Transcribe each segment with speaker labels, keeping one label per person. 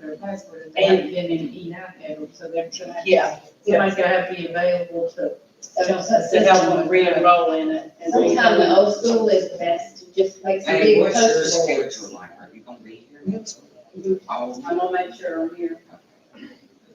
Speaker 1: the password, and they haven't given him E nine code, so they're gonna have. to-
Speaker 2: Yeah, yeah.
Speaker 1: Somebody's gonna have to be available to, to
Speaker 3: That's
Speaker 1: help
Speaker 3: what
Speaker 1: them
Speaker 3: I'm
Speaker 1: re-enroll in it. and be-
Speaker 3: Sometimes the old school is best to just make some
Speaker 4: Hey,
Speaker 3: big
Speaker 4: what's your
Speaker 3: posters.
Speaker 4: schedule like? Are you gonna be here? All
Speaker 1: I'm
Speaker 4: night?
Speaker 1: gonna make sure I'm here.
Speaker 4: Okay.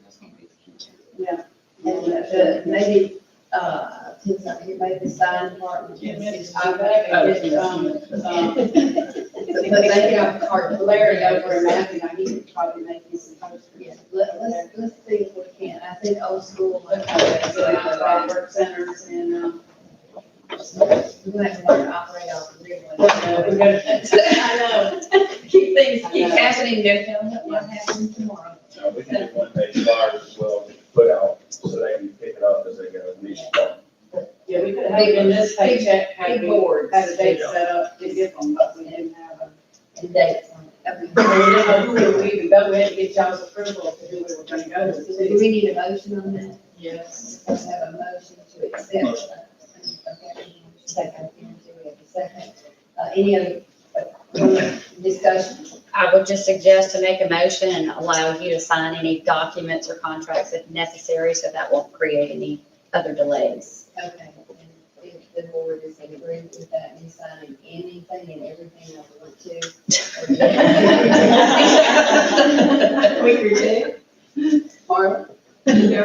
Speaker 4: That's gonna be the key.
Speaker 3: And the, maybe, uh, since I'm here, maybe the sign part.
Speaker 1: Yes.
Speaker 3: I
Speaker 4: Oh,
Speaker 3: bet, and, um, um, But they can have cart,
Speaker 1: Larry over in Matthew, I need to probably make you some
Speaker 3: Yeah,
Speaker 1: posters.
Speaker 3: let, let's, let's see if we can, I think old school.
Speaker 1: Okay, uh, so that's our work centers and, um,
Speaker 3: We might have to operate off the real one.
Speaker 1: we're gonna-
Speaker 3: I know, keep things,
Speaker 1: I
Speaker 3: keep
Speaker 1: know.
Speaker 3: happening, don't tell them what happens tomorrow.
Speaker 5: Now, we can do one page flyers as well, put out, so they can pick it up as they go, we should,
Speaker 1: yeah, we could have in this paycheck, had
Speaker 3: Big
Speaker 1: we
Speaker 3: boards
Speaker 1: had a date set up to give them, but we didn't have a.
Speaker 3: and dates on it.
Speaker 1: We didn't know who we were even going, we had to get y'all's approval to who we were gonna go
Speaker 3: Do
Speaker 1: to.
Speaker 3: we need a motion on that?
Speaker 1: Yes.
Speaker 3: Let's have a motion to accept. Okay, Second, into it, second. Uh, any other uh, discussion?
Speaker 6: I would just suggest to make a motion and allow you to sign any documents or contracts if necessary, so that won't create any other delays.
Speaker 3: Okay, and if the board is in agreement with that, me signing anything and everything I want to.
Speaker 1: We agree, Jay?
Speaker 3: Or,
Speaker 7: We
Speaker 3: anything?
Speaker 7: do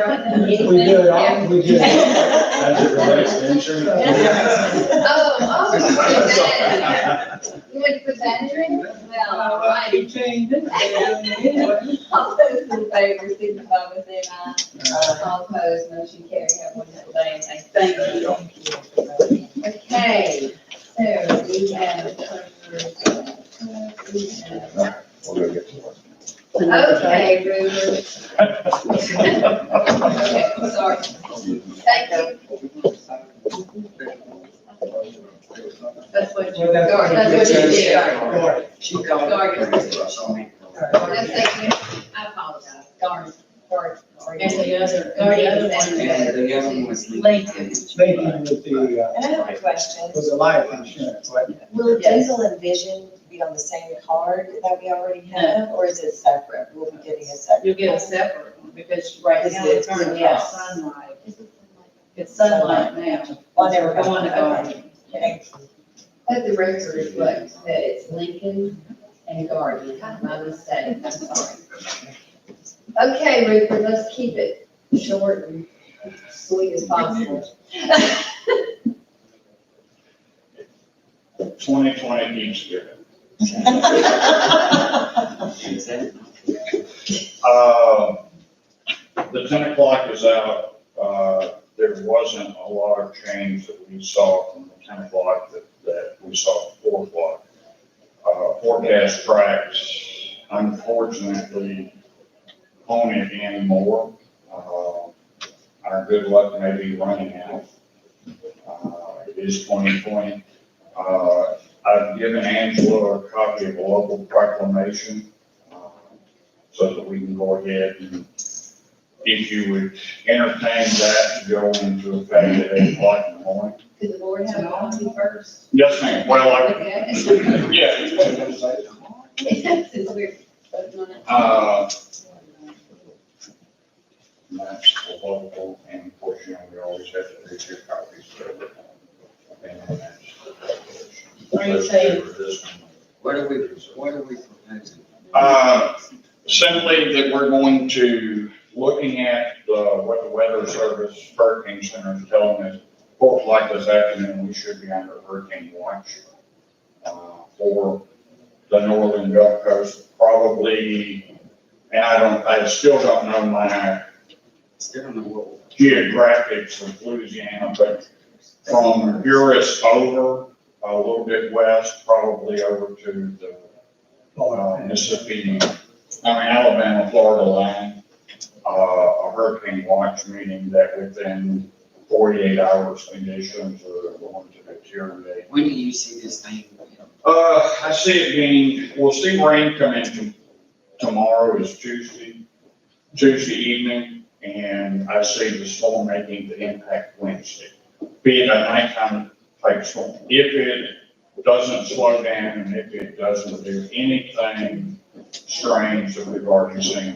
Speaker 7: it all, we do it.
Speaker 5: as it relates to insurance.
Speaker 3: Oh, oh, you put that in there. you want to put that in there? Well, all right. All those in favor, signify by saying aye. All opposed, motion carried, have one that day, and I thank you. Okay, so we have. uh,
Speaker 5: We'll go get to work.
Speaker 3: Okay, Drew. Okay, I'm sorry, thank you. That's what you, that's what you did.
Speaker 4: She called.
Speaker 3: Garden. That's
Speaker 4: And
Speaker 3: like, I apologize, darn, darn, darn.
Speaker 1: And the other, and the other one.
Speaker 4: the other one was
Speaker 3: Lincoln.
Speaker 4: Lincoln.
Speaker 7: Lincoln with the, uh,
Speaker 8: I have a question.
Speaker 7: with the life insurance, right?
Speaker 8: Will
Speaker 3: Yes.
Speaker 8: diesel and vision be on the same card that we already have, or is it separate? Will we be getting a separate?
Speaker 1: You'll get a separate one, because right now it's currently
Speaker 8: Yeah.
Speaker 1: sunlight. It's sunlight now.
Speaker 8: Oh, there we go.
Speaker 1: Go on to garden.
Speaker 8: Thank you.
Speaker 3: Let the record reflect that it's Lincoln and Garden, my mistake, I'm sorry. Okay, Rupert, let's keep it short and sweet as possible.
Speaker 5: Twenty twenty each year.
Speaker 4: Is that?
Speaker 5: Um, The ten o'clock is out. Uh, There wasn't a lot of change that we saw from the ten o'clock that, that we saw at four o'clock. Uh, Forecast tracks, unfortunately, on it anymore. Uh, Our good luck may be running out. Uh, It is twenty twenty. Uh, I've given Angela a copy of a local proclamation. uh, so that we can go ahead and if you would entertain that to go into effect at eight o'clock in the morning.
Speaker 3: Could the board have a copy first?
Speaker 5: Yes, ma'am. Well, I,
Speaker 3: Okay.
Speaker 5: yeah.
Speaker 3: Since we're voting on it.
Speaker 5: Uh, That's the local, and of course, you know, we always have to read your copies. so, and that's-
Speaker 1: Are you saying-
Speaker 5: This one.
Speaker 4: What are we, what are we proposing?
Speaker 5: Uh, Simply that we're going to, looking at the, what the weather service hurricane center is telling us, folks like this afternoon, we should be under hurricane watch uh, for the northern Gulf Coast, probably, and I don't, I still don't know my
Speaker 4: Still don't know what.
Speaker 5: geographics of Louisiana, but from Uris over, a little bit west, probably over to the uh, Mississippi, I mean Alabama, Florida line, uh, a hurricane watch, meaning that within forty-eight hours conditions are going to deteriorate.
Speaker 4: When do you see this thing?
Speaker 5: Uh, I see it being, we'll see rain come in tom- tomorrow is Tuesday, Tuesday evening, and I see the storm making the impact Wednesday. Being a nighttime type storm. If it doesn't slow down and if it doesn't do anything strains that we've already seen